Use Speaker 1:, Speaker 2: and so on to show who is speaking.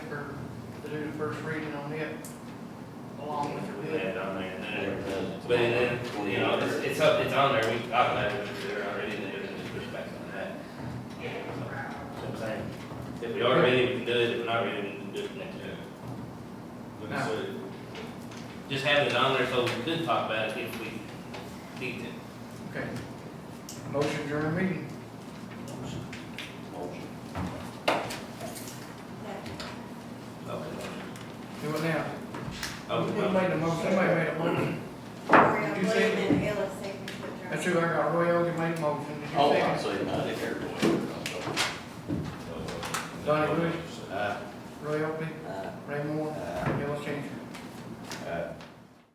Speaker 1: do the first reading on it along with the bid.
Speaker 2: Yeah, on there, and then, it- but then, you know, it's, it's up, it's on there, we, I've had it there already, and then just push back on that. So, that's what I'm saying, if we are ready, we can do it, if we're not ready, we can do it next year.
Speaker 3: But I said,
Speaker 2: Just having it on there so we could talk about it if we need to.
Speaker 1: Okay. Motion during meeting.
Speaker 2: Okay.
Speaker 1: Do it now.
Speaker 4: Oh,
Speaker 2: Okay,
Speaker 1: Who
Speaker 2: well,
Speaker 1: made the motion? Somebody made a motion.
Speaker 5: Mario
Speaker 1: Did you say-
Speaker 5: William and Ella second to adjourn.
Speaker 1: That's who I got. Roy Elder made the motion. Did you
Speaker 4: Oh,
Speaker 1: second?
Speaker 4: I see, not if everybody.
Speaker 1: Donnie Bush,
Speaker 4: Uh,
Speaker 1: Roy Elder,
Speaker 4: uh,
Speaker 1: Ray Moore,
Speaker 4: uh.
Speaker 1: Bill Changer.